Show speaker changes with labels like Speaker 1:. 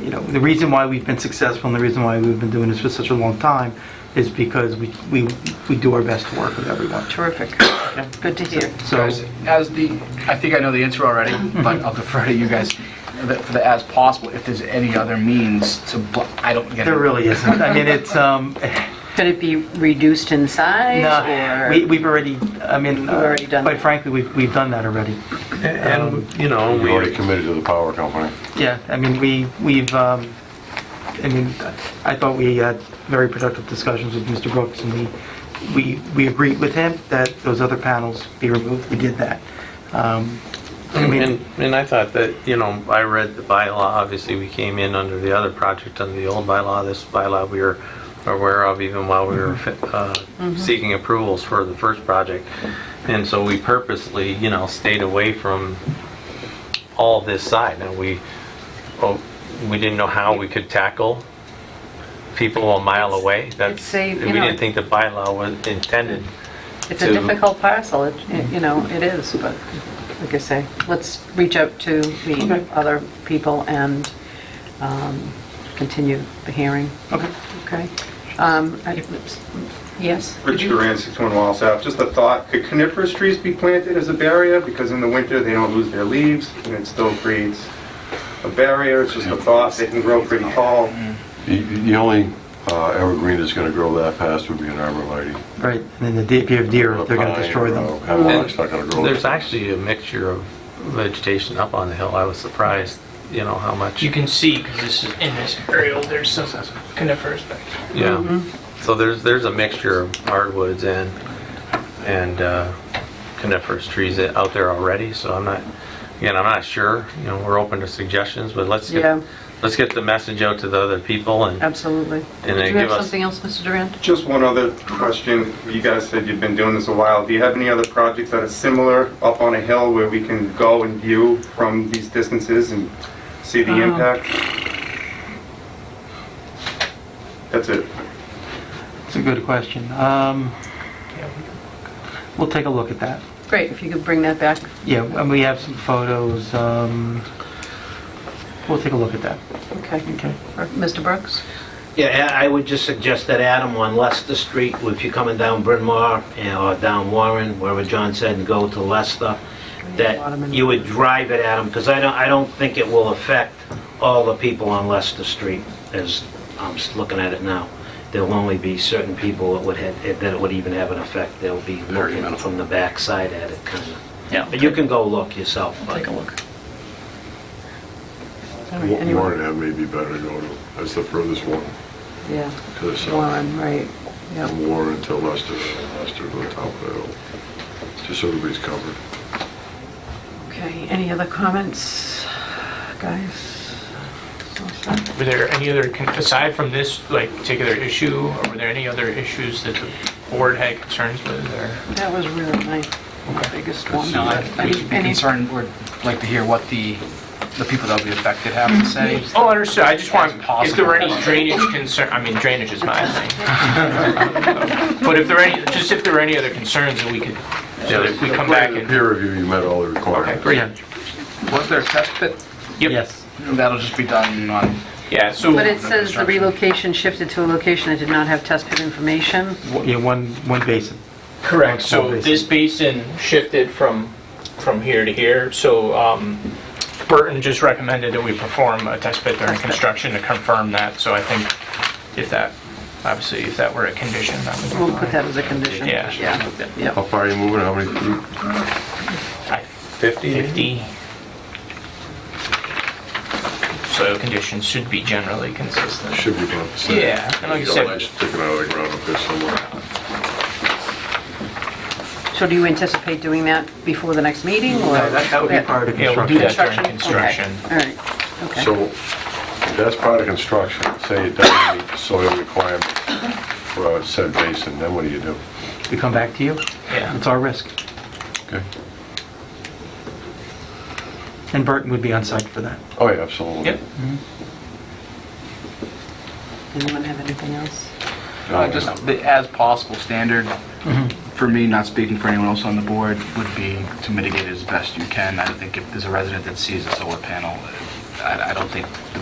Speaker 1: you know, the reason why we've been successful and the reason why we've been doing this for such a long time is because we, we, we do our best to work with everyone.
Speaker 2: Terrific. Good to hear.
Speaker 1: So,
Speaker 3: Guys, as the, I think I know the answer already, but I'll defer to you guys The- for the as possible, if there's any other means to, bl- I don't get it.
Speaker 1: there really isn't. I mean, it's, um,
Speaker 2: Could it be reduced in size
Speaker 1: no,
Speaker 2: or?
Speaker 1: we, we've already, I mean, uh,
Speaker 2: already done
Speaker 1: quite
Speaker 2: that.
Speaker 1: frankly, we've, we've done that already.
Speaker 4: And, you know,
Speaker 5: You're already
Speaker 4: we,
Speaker 5: committed to the power company.
Speaker 1: Yeah, I mean, we, we've, um, I mean, I thought we had very productive discussions with Mr. Brooks, and we, we, we agreed with him that those other panels be removed, we did that. Um, I
Speaker 4: and,
Speaker 1: mean,
Speaker 4: and I thought that, you know, I read the bylaw, obviously, we came in under the other project, under the old bylaw, this bylaw we were aware of even while we were uh,
Speaker 2: Mm-hmm.
Speaker 4: seeking approvals for the first project. And so we purposely, you know, stayed away from all this side. Now, we, oh, we didn't know how we could tackle people a mile away. That's,
Speaker 2: It's a,
Speaker 4: we
Speaker 2: you know-
Speaker 4: didn't think the bylaw was intended.
Speaker 2: It's a
Speaker 4: to-
Speaker 2: difficult parcel, it- it- you know, it is, but like I say, let's reach out to the other people and um, continue the hearing,
Speaker 1: Okay.
Speaker 2: okay? Um, I- Yes?
Speaker 6: Richard Duran, 61 Wall South. Just a thought, could coniferous trees be planted as a barrier? Because in the winter, they don't lose their leaves, and it still creates a barrier. It's just a thought, they can grow pretty tall.
Speaker 5: The- The only uh, evergreen that's going to grow that fast would be an arborvitae.
Speaker 1: Right, and then the de- if you have deer,
Speaker 5: A
Speaker 1: they're going
Speaker 5: pine
Speaker 1: to destroy
Speaker 5: or a
Speaker 1: them.
Speaker 5: Hemlock's not going to grow.
Speaker 4: There's actually a mixture of vegetation up on the hill. I was surprised, you know, how much.
Speaker 7: You can see, because this is, in this aerial, there's some coniferous back there.
Speaker 4: Yeah. So there's, there's a mixture of hardwoods and, and uh, coniferous trees that- out there already, so I'm not, again, I'm not sure. You know, we're open to suggestions, but let's
Speaker 2: Yeah.
Speaker 4: get, let's get the message out to the other people and,
Speaker 2: Absolutely.
Speaker 4: And
Speaker 2: Do
Speaker 4: they
Speaker 2: you have
Speaker 4: give us-
Speaker 2: something else, Mr. Durant?
Speaker 6: Just one other question. You guys said you've been doing this a while. Do you have any other projects that are similar up on a hill where we can go and view from these distances and see the impact? That's it.
Speaker 1: It's a good question. Um, We'll take a look at that.
Speaker 2: Great, if you could bring that back.
Speaker 1: Yeah, and we have some photos. um, We'll take a look at that.
Speaker 2: Okay.
Speaker 1: Okay.
Speaker 2: Or Mr. Brooks?
Speaker 8: Yeah, I I would just suggest that Adam on Leicester Street, if you're coming down Bryn Mawr eh, or down Warren, wherever John said, and go to Leicester, that you would drive it at them, because I don't, I don't think it will affect all the people on Leicester Street, as I'm s- looking at it now. There'll only be certain people that would, have- eh, that it would even have an effect. They'll be looking from the backside at it, kind of.
Speaker 2: Yeah.
Speaker 8: But you can go look yourself. but-
Speaker 2: Take a look. All right,
Speaker 5: Wa-
Speaker 2: anyone?
Speaker 5: Warren Ave may be better to go to. That's the furthest one
Speaker 2: Yeah,
Speaker 5: to the south.
Speaker 2: Warren, right, yeah.
Speaker 5: From Warren to Leicester, and Leicester to the top of the hill. Just so everybody's covered.
Speaker 2: Okay, any other comments, guys? So sad.
Speaker 7: Were there any other, con- aside from this, like, particular issue, or were there any other issues that the board had concerns with, or?
Speaker 2: That was really my biggest one.
Speaker 3: No,
Speaker 2: But
Speaker 3: I- I'd
Speaker 2: any-
Speaker 3: be
Speaker 2: any-
Speaker 3: concerned, would like to hear what the, the people that would be affected have to
Speaker 2: Mm-hmm.
Speaker 3: say.
Speaker 7: Oh, understood, I just want, if there were any
Speaker 3: Possible.
Speaker 7: drainage concern, I mean, drainage is my thing. But if there are any, just if there were any other concerns, that we could, so that if we come back
Speaker 5: In
Speaker 7: and,
Speaker 5: Peer review, you met all the requirements.
Speaker 7: great.
Speaker 1: Yeah.
Speaker 3: Was there a test pit?
Speaker 7: Yep.
Speaker 1: Yes.
Speaker 3: That'll just be done on, uh,
Speaker 7: yeah, so.
Speaker 2: But it says the relocation shifted to a location that did not have test pit information.
Speaker 1: Wa- Yeah, one, one basin.
Speaker 7: Correct,
Speaker 1: Small
Speaker 7: so
Speaker 1: basin.
Speaker 7: this basin shifted from, from here to here, so um, Burton just recommended that we perform a test pit during construction to confirm that, so I think if that, obviously, if that were a condition, that would
Speaker 2: We'll
Speaker 7: be
Speaker 2: put
Speaker 7: fine.
Speaker 2: that as a condition.
Speaker 7: Yeah.
Speaker 2: Yeah.
Speaker 5: How far are you moving? How many feet?
Speaker 7: I-
Speaker 4: 50?
Speaker 7: 50. Soil conditions should be generally consistent.
Speaker 5: Should be about the same.
Speaker 7: Yeah, and like you
Speaker 5: Got
Speaker 7: said-
Speaker 5: lights Sticking out of the ground up there somewhere.
Speaker 2: So do you anticipate doing that before the next meeting,
Speaker 1: No,
Speaker 2: or?
Speaker 1: that, that would be part of
Speaker 7: Yeah, we'll
Speaker 1: construction.
Speaker 7: do
Speaker 2: Okay,
Speaker 7: that during construction.
Speaker 2: all right, okay.
Speaker 5: So that's part of construction. Say it doesn't meet the soil requirement for a said basin, then what do you do?
Speaker 1: We come back to you.
Speaker 7: Yeah,
Speaker 1: It's our risk.
Speaker 5: Okay?
Speaker 1: And Burton would be on site for that.
Speaker 5: Oh, yeah, absolutely.
Speaker 7: Yep.
Speaker 2: Anyone have anything else?
Speaker 5: No,
Speaker 3: uh, just the as possible standard.
Speaker 1: Mm-hmm.
Speaker 3: For me, not speaking for anyone else on the board, would be to mitigate it as best you can. I think if there's a resident that sees a solar panel, I I don't think the